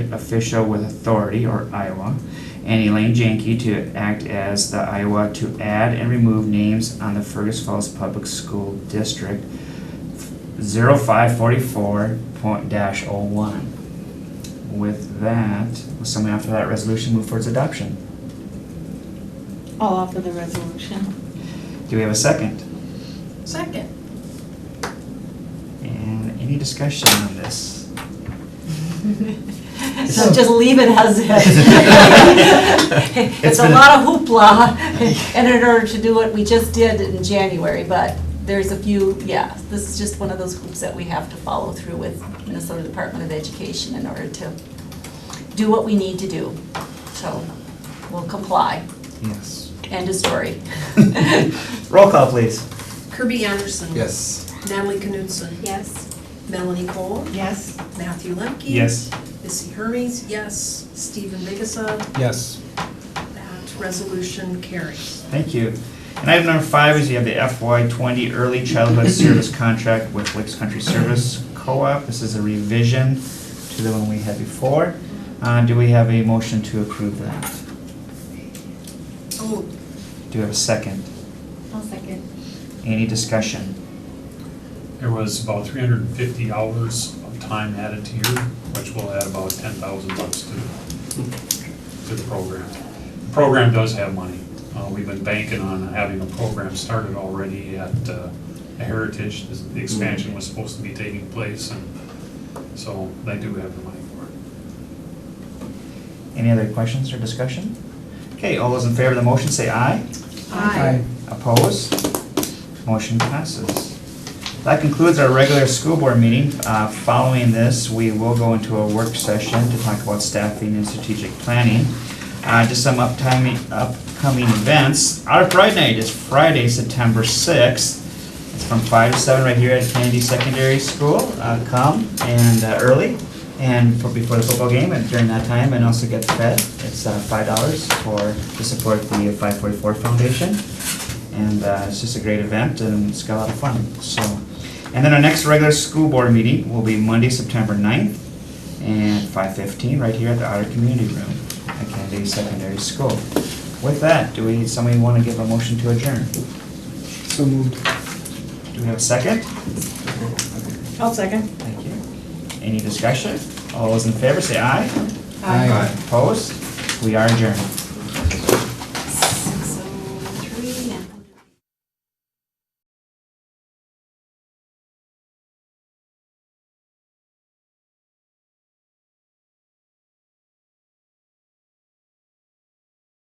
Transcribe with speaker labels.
Speaker 1: official with authority, or Iowa, and Elaine Janke to act as the Iowa to add and remove names on the Fergus Falls Public School District 0544 point dash oh one. With that, will someone after that resolution move for its adoption?
Speaker 2: I'll offer the resolution.
Speaker 1: Do we have a second?
Speaker 2: Second.
Speaker 1: And any discussion on this?
Speaker 2: So just leave it as is. It's a lot of hoopla, and in order to do what we just did in January, but there's a few, yeah, this is just one of those hoops that we have to follow through with Minnesota Department of Education in order to do what we need to do. So we'll comply.
Speaker 1: Yes.
Speaker 2: End of story.
Speaker 1: Roll call, please.
Speaker 3: Kirby Anderson.
Speaker 4: Yes.
Speaker 3: Natalie Knudsen. Yes. Melanie Cole.
Speaker 2: Yes.
Speaker 3: Matthew Lemke. Missy Hermes, yes. Stephen Vigasa,
Speaker 4: Yes.
Speaker 3: that resolution carries.
Speaker 1: Thank you. And item number five is you have the FY twenty Early Childhood Service Contract with Lakes Country Service Co-op. This is a revision to the one we had before. Uh, do we have a motion to approve that?
Speaker 3: Oh,
Speaker 1: Do we have a second?
Speaker 2: I'll second.
Speaker 1: Any discussion?
Speaker 5: There was about three hundred and fifty hours of time added to here, which will add about ten thousand bucks to, to the program. The Program does have money. Uh, we've been banking on having a program started already at, uh, Heritage. The expansion was supposed to be taking place and so they do have the money for it.
Speaker 1: Any other questions or discussion? Okay, all those in favor of the motion say aye.
Speaker 3: aye.
Speaker 1: Opposed? Motion passes. That concludes our regular school board meeting. Uh, Following this, we will go into a work session to talk about staffing and strategic planning. Uh, Just some upcoming, upcoming events. Our Pride Night is Friday, September 6th. It's from 5 to 7 right here at Kennedy Secondary School. Uh, Come and uh, early and for- before the football game and during that time and also get fed. It's uh, $5 for, to support the 544 Foundation. And uh, it's just a great event and it's got a lot of fun, so. And then our next regular school board meeting will be Monday, September 9th and 5:15 right here at the Otter Community Room at Kennedy Secondary School. With that, do we, somebody want to give a motion to adjourn?
Speaker 4: So moved.
Speaker 1: Do we have a second?
Speaker 2: I'll second.
Speaker 1: Thank you. Any discussion? All those in favor, say aye.
Speaker 4: Aye.
Speaker 1: Opposed? We are adjourned.